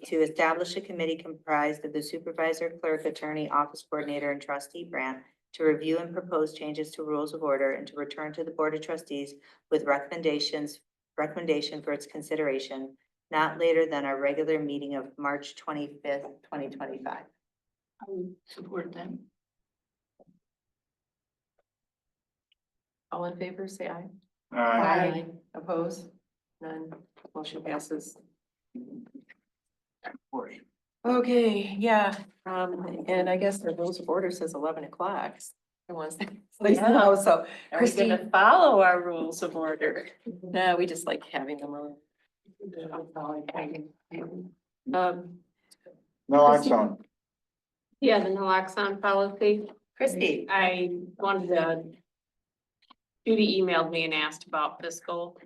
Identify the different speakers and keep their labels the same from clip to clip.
Speaker 1: to establish a committee comprised of the supervisor, clerk, attorney, office coordinator, and trustee Brandt to review and propose changes to rules of order and to return to the Board of Trustees with recommendations, recommendation for its consideration not later than our regular meeting of March twenty-fifth, twenty twenty-five.
Speaker 2: I would support them. All in favor, say aye.
Speaker 3: Aye.
Speaker 2: Oppose? None. Motion passes.
Speaker 3: Forty.
Speaker 2: Okay, yeah, um, and I guess the rules of order says eleven o'clock. It wants to, now, so
Speaker 4: Are we gonna
Speaker 2: Christine.
Speaker 4: follow our rules of order?
Speaker 2: no, we just like having them on. Um,
Speaker 3: No, I'm sorry.
Speaker 4: Yeah, the naloxone policy.
Speaker 1: Christie.
Speaker 4: I wanted to. Judy emailed me and asked about fiscal.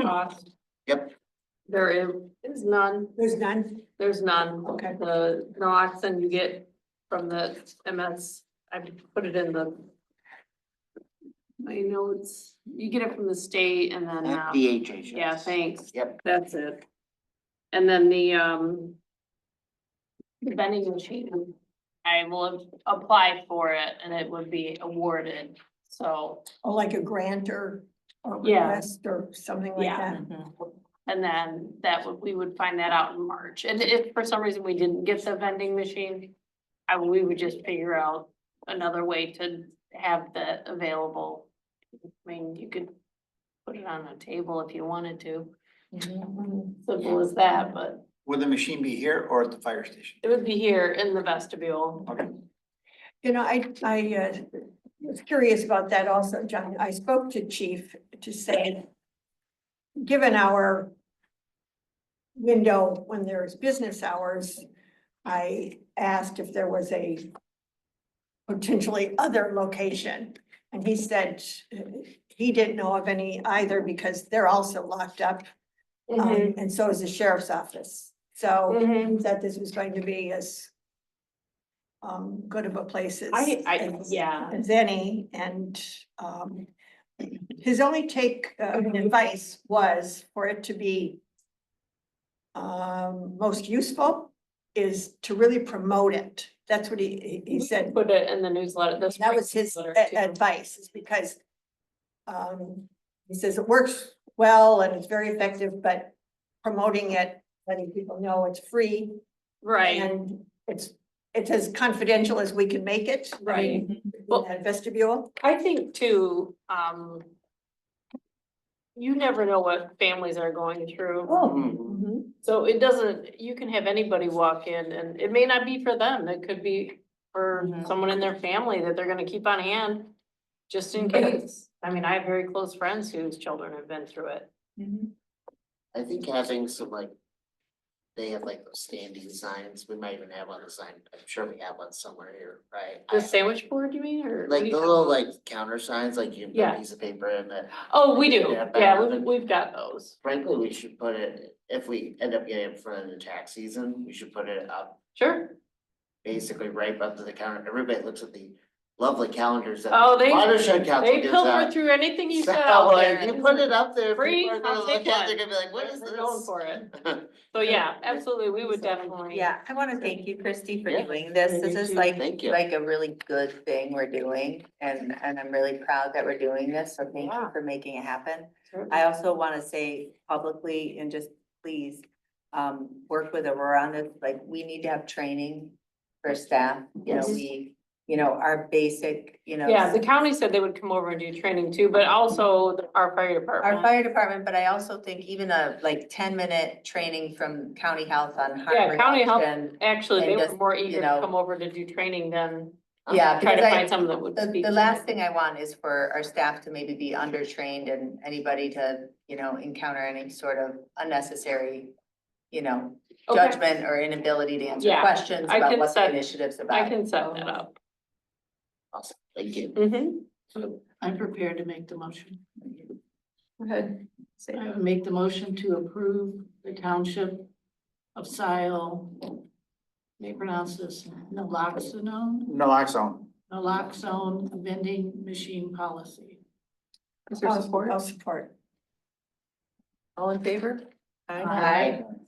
Speaker 4: Cost.
Speaker 3: Yep.
Speaker 4: There is- is none,
Speaker 5: There's none.
Speaker 4: there's none.
Speaker 5: Okay.
Speaker 4: The naloxone you get from the MS, I put it in the. I know it's, you get it from the state and then, uh,
Speaker 3: DHA.
Speaker 4: yeah, thanks.
Speaker 3: Yep.
Speaker 4: That's it. And then the, um. The vending machine, I will apply for it and it would be awarded, so,
Speaker 5: Oh, like a grant or, or
Speaker 4: Yeah.
Speaker 5: request or something like
Speaker 4: Yeah.
Speaker 5: that.
Speaker 6: Mm-hmm.
Speaker 4: and then that would, we would find that out in March. And if for some reason we didn't get the vending machine, I, we would just figure out another way to have that available. I mean, you could put it on a table if you wanted to, simple as that, but.
Speaker 3: Would the machine be here or at the fire station?
Speaker 4: It would be here in the vestibule.
Speaker 3: Okay.
Speaker 5: You know, I, I uh, was curious about that also, John. I spoke to chief to say, given our window when there's business hours, I asked if there was a potentially other location. And he said uh, he didn't know of any either because they're also locked up.
Speaker 4: Mm-hmm.
Speaker 5: Um, and so is the sheriff's office. So
Speaker 4: Mhm.
Speaker 5: that this was going to be as um, good of a place as.
Speaker 4: I, I,
Speaker 5: as-
Speaker 4: yeah,
Speaker 5: As any, and um, his only take uh, and
Speaker 4: Mhm.
Speaker 5: advice was for it to be um, most useful is to really promote it. That's what he, he he said.
Speaker 4: put it in the newsletter, this.
Speaker 5: That was his
Speaker 4: newsletter,
Speaker 5: a-
Speaker 4: too.
Speaker 5: advice, is because um, he says it works well and it's very effective, but promoting it, letting people know it's free
Speaker 4: Right,
Speaker 5: and it's, it's as confidential as we can make it. I
Speaker 4: right.
Speaker 5: mean,
Speaker 4: Well-
Speaker 5: in that Vestibule,
Speaker 4: I think too, um. You never know what families are going through,
Speaker 3: Mhm.
Speaker 4: so it doesn't, you can have anybody walk in and it may not be for them, it could be for
Speaker 5: Mm-hmm.
Speaker 2: Mhm.
Speaker 4: someone in their family that they're gonna keep on hand. Just in case, I mean, I have very close friends whose children have been through it.
Speaker 6: I think having some like, they have like those standing signs, we might even have on the sign, I'm sure we have one somewhere here, right?
Speaker 4: The
Speaker 6: I-
Speaker 4: sandwich board, you mean, or? what do
Speaker 6: Like
Speaker 4: you
Speaker 6: the
Speaker 4: call
Speaker 6: little
Speaker 4: it?
Speaker 6: like counter signs, like you put
Speaker 4: Yeah.
Speaker 6: a piece of paper in that,
Speaker 4: Oh, we do,
Speaker 6: Yeah, back
Speaker 4: yeah,
Speaker 6: of
Speaker 4: we've,
Speaker 6: it.
Speaker 4: we've got those.
Speaker 6: frankly, we should put it, if we end up getting it in front of the tax season, we should put it up.
Speaker 4: Sure.
Speaker 6: Basically right up to the counter, everybody looks at the lovely calendars that
Speaker 4: Oh, they,
Speaker 6: Watershed Council
Speaker 4: they
Speaker 6: gives
Speaker 4: pilfer
Speaker 6: out.
Speaker 4: through anything you
Speaker 6: So,
Speaker 4: sell out
Speaker 6: like,
Speaker 4: there.
Speaker 6: you put it up there,
Speaker 4: Free,
Speaker 6: people are
Speaker 4: I'll
Speaker 6: gonna
Speaker 4: take
Speaker 6: look at, it,
Speaker 4: one.
Speaker 6: they're gonna be like, what is
Speaker 4: We're
Speaker 6: this?
Speaker 4: going for it. So yeah, absolutely, we would definitely.
Speaker 1: Yeah, I want to thank you, Christy, for
Speaker 6: Yeah.
Speaker 1: doing this. This is like,
Speaker 6: Thank you.
Speaker 1: like a really good thing we're doing. And, and I'm really proud that we're doing this. So thank you for making it happen. I also want to say publicly and just please, um, work with Aurora on this, like, we need to have training for staff, you know,
Speaker 4: Yes.
Speaker 1: we, you know, our basic, you know.
Speaker 4: Yeah, the county said they would come over and do training too, but also the- our fire
Speaker 1: Our
Speaker 4: department.
Speaker 1: fire department, but I also think even a like ten minute training from county health on harm
Speaker 4: Yeah, county health-
Speaker 1: reduction.
Speaker 4: Actually,
Speaker 1: and
Speaker 4: they were
Speaker 1: just,
Speaker 4: more
Speaker 1: you
Speaker 4: eager to
Speaker 1: know-
Speaker 4: come over to do training than
Speaker 1: Yeah,
Speaker 4: try to
Speaker 1: because I-
Speaker 4: find someone that would
Speaker 1: The,
Speaker 4: speak.
Speaker 1: the last thing I want is for our staff to maybe be undertrained and anybody to, you know, encounter any sort of unnecessary, you know,
Speaker 4: Okay,
Speaker 1: judgment or inability to answer
Speaker 4: Yeah,
Speaker 1: questions
Speaker 4: I
Speaker 1: about
Speaker 4: can
Speaker 1: what the
Speaker 4: set-
Speaker 1: initiative's
Speaker 4: I
Speaker 1: about.
Speaker 4: can set that up.
Speaker 6: Awesome, thank you.
Speaker 4: Mhm.
Speaker 7: I'm prepared to make the motion.
Speaker 2: go ahead. Say
Speaker 7: I would make the motion to approve the township of Sile. May I pronounce this, naloxone,
Speaker 3: Naloxone.
Speaker 7: naloxone vending machine policy.
Speaker 2: Is there
Speaker 5: I'll
Speaker 2: support?
Speaker 5: I'll support.
Speaker 2: All in favor?
Speaker 1: Aye.
Speaker 3: Aye.